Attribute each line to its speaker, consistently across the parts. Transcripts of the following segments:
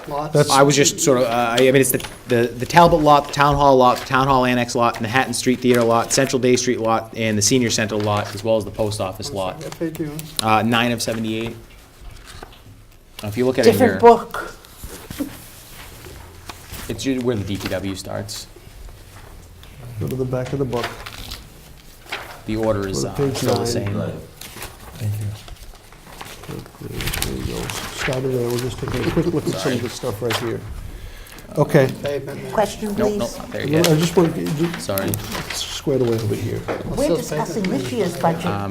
Speaker 1: back lots?
Speaker 2: That's-
Speaker 3: I was just sort of, uh, I mean, it's the, the the Talbot lot, the Town Hall lot, the Town Hall Annex lot, Manhattan Street Theater lot, Central Day Street lot, and the Senior Center lot, as well as the Post Office lot.
Speaker 1: Yes, they do.
Speaker 3: Uh, Nine of 78. Uh, If you look at it here,
Speaker 4: Different book.
Speaker 3: it's usually where the DPW starts.
Speaker 1: Go to the back of the book.
Speaker 3: The order is
Speaker 1: Go
Speaker 3: uh,
Speaker 1: to page
Speaker 3: still the
Speaker 1: nine.
Speaker 3: same.
Speaker 2: Thank you.
Speaker 1: There you go. Starting there, we'll just take a quick look at some of the stuff right here. Okay.
Speaker 4: Question,
Speaker 3: Nope, nope,
Speaker 4: please.
Speaker 3: not there
Speaker 1: I
Speaker 3: yet.
Speaker 1: just want, just
Speaker 3: Sorry.
Speaker 1: squared away over here.
Speaker 4: We're discussing this year's
Speaker 3: Um,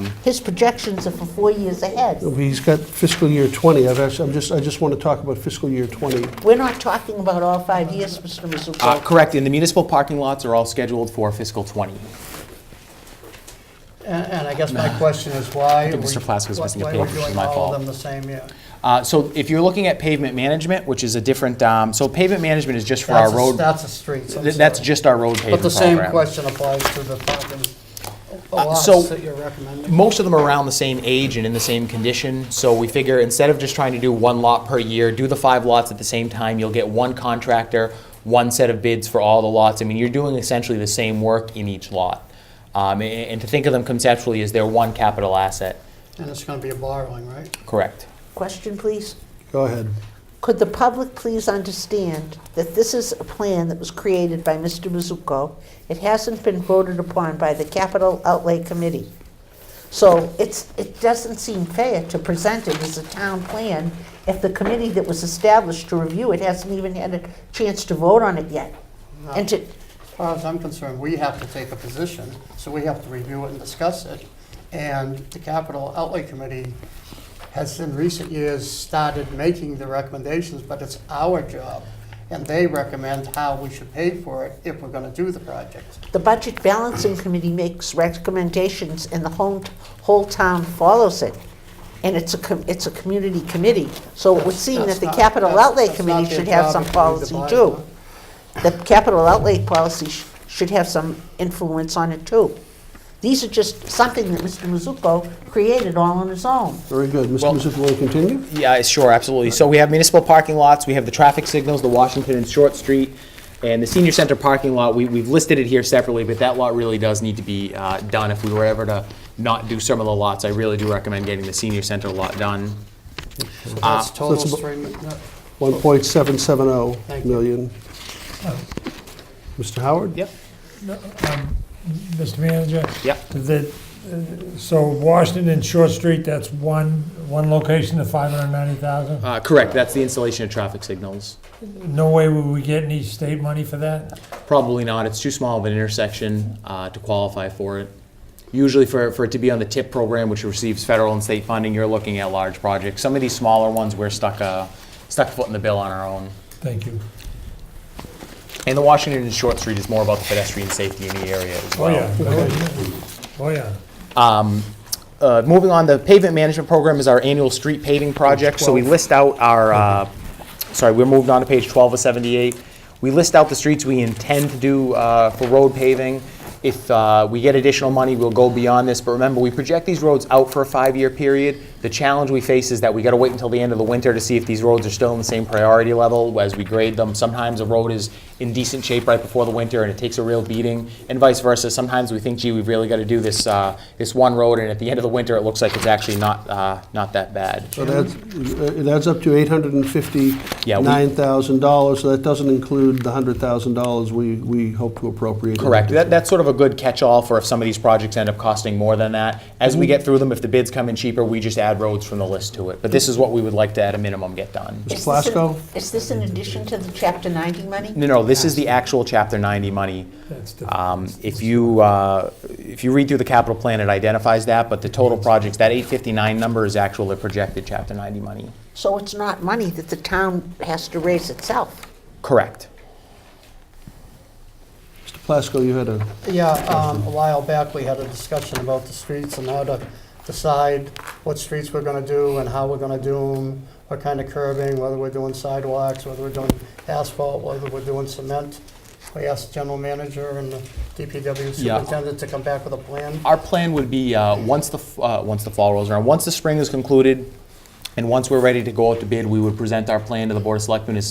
Speaker 4: budget. His projections are for four years ahead.
Speaker 1: He's got fiscal year 20. I've actually, I'm just, I just want to talk about fiscal year 20.
Speaker 4: We're not talking about all five years, Mr.
Speaker 3: Uh,
Speaker 4: Mizuko.
Speaker 3: Correct, and the municipal parking lots are all scheduled for fiscal '20.
Speaker 5: And, and I guess my question is why?
Speaker 3: I think
Speaker 5: are we-
Speaker 3: Mr. Plasko's
Speaker 5: why-
Speaker 3: missing a
Speaker 5: why
Speaker 3: page,
Speaker 5: are we
Speaker 3: which is
Speaker 5: doing
Speaker 3: my
Speaker 5: all
Speaker 3: fault.
Speaker 5: of them the same year?
Speaker 3: Uh, So if you're looking at pavement management, which is a different, um, so pavement management is just for our
Speaker 5: That's a-
Speaker 3: road.
Speaker 5: That's a street.
Speaker 3: Th- That's just our road
Speaker 5: But
Speaker 3: paving program. Uh,
Speaker 5: the same question applies to the parking lots
Speaker 3: so-
Speaker 5: that you're recommending.
Speaker 3: Most of them are around the same age and in the same condition, so we figure instead of just trying to do one lot per year, do the five lots at the same time, you'll get one contractor, one set of bids for all the lots. I mean, you're doing essentially the same work in each lot. Um, a- And to think of them conceptually as their one capital asset,
Speaker 5: And it's going to be a borrowing, right?
Speaker 3: correct?
Speaker 4: Question, please.
Speaker 1: Go ahead.
Speaker 4: Could the public please understand that this is a plan that was created by Mr. Mizuko? It hasn't been voted upon by the Capital Outlay Committee. So it's, it doesn't seem fair to present it as a town plan if the committee that was established to review it hasn't even had a chance to vote on it yet. And to,
Speaker 5: As far as I'm concerned, we have to take a position, so we have to review it and discuss it. And the Capital Outlay Committee has in recent years started making the recommendations, but it's our job. And they recommend how we should pay for it if we're going to do the project.
Speaker 4: the Budget Balancing Committee makes recommendations, and the whole, whole town follows it. And it's a, com- it's a community committee, so it would seem that
Speaker 5: That's
Speaker 4: the
Speaker 5: not-
Speaker 4: Capital
Speaker 5: that's-
Speaker 4: Outlay
Speaker 5: that's
Speaker 4: Committee
Speaker 5: not their
Speaker 4: should have
Speaker 5: job
Speaker 4: some
Speaker 5: if we read the
Speaker 4: policy
Speaker 5: bylaw.
Speaker 4: too. The Capital Outlay policy sh- should have some influence on it too. These are just something that Mr. Mizuko created all on his own.
Speaker 1: Very good.
Speaker 3: Well-
Speaker 1: Mr. Mizuko, will you continue?
Speaker 3: Yeah, sure, absolutely. So we have municipal parking lots, we have the traffic signals, the Washington and Short Street, and the senior center parking lot, we, we've listed it here separately, but that lot really does need to be, uh, done. If we were ever to not do some of the lots, I really do recommend getting the senior center lot done.
Speaker 5: That's total
Speaker 1: that's abo-
Speaker 5: stream, no,
Speaker 1: 1.770
Speaker 5: Thank you.
Speaker 1: million. Mr. Howard?
Speaker 3: Yep.
Speaker 6: Mr. Manager?
Speaker 3: Yep.
Speaker 6: That, uh, so Washington and Short Street, that's one, one location of 590,000?
Speaker 3: Uh, correct, that's the installation of traffic signals.
Speaker 6: No way would we get any state money for that?
Speaker 3: Probably not, it's too small of an intersection, uh, to qualify for it. Usually for, for it to be on the TIP program, which receives federal and state funding, you're looking at large projects. Some of these smaller ones, we're stuck, uh, stuck foot in the bill on our own.
Speaker 6: Thank you.
Speaker 3: And the Washington and Short Street is more about the pedestrian safety in the area as
Speaker 6: Oh,
Speaker 3: well.
Speaker 6: yeah. Oh, yeah.
Speaker 3: Uh, moving on, the pavement management program is our annual street paving project. So we list out our, uh,
Speaker 6: Mm-hmm.
Speaker 3: sorry, we moved on to page 12 of 78. We list out the streets we intend to do uh, for road paving. If uh, we get additional money, we'll go beyond this. But remember, we project these roads out for a five-year period. The challenge we face is that we got to wait until the end of the winter to see if these roads are still in the same priority level as we grade them. Sometimes a road is in decent shape right before the winter and it takes a real beating, and vice versa. Sometimes we think, gee, we've really got to do this uh, this one road, and at the end of the winter, it looks like it's actually not uh, not that bad.
Speaker 1: It adds, it adds up to
Speaker 3: Yeah, we-
Speaker 1: $859,000, so that doesn't include the $100,000 we, we hope to appropriate. in
Speaker 3: Correct. That,
Speaker 1: addition.
Speaker 3: that's sort of a good catch-all for if some of these projects end up costing more than that. As we get through them, if the bids come in cheaper, we just add roads from the list to it. But this is what we would like to, at a minimum, get done.
Speaker 4: Is this in-
Speaker 1: Plasko?
Speaker 4: Is this in addition to the Chapter 90 money?
Speaker 3: No, no, this is the actual Chapter 90 money.
Speaker 6: That's different.
Speaker 3: Um, If you, uh, if you read through the capital plan, it identifies that, but the total projects, that 859 number is actual, the projected Chapter 90 money.
Speaker 4: So it's not money that the town has to raise itself.
Speaker 3: Correct.
Speaker 1: Mr. Plasko, you had a,
Speaker 5: Yeah, um, a while back, we had a discussion about the streets and how to decide what streets we're gonna do and how we're gonna do them, what kind of curbing, whether we're doing sidewalks, whether we're doing asphalt, whether we're doing cement. We asked the general manager and the DPW
Speaker 3: Yeah.
Speaker 5: superintendent to come back with a plan.
Speaker 3: Our plan would be, uh, once the, f- uh, once the fall rolls around, once the spring is concluded, and once we're ready to go out to bid, we would present our plan to the Board of Selectmen as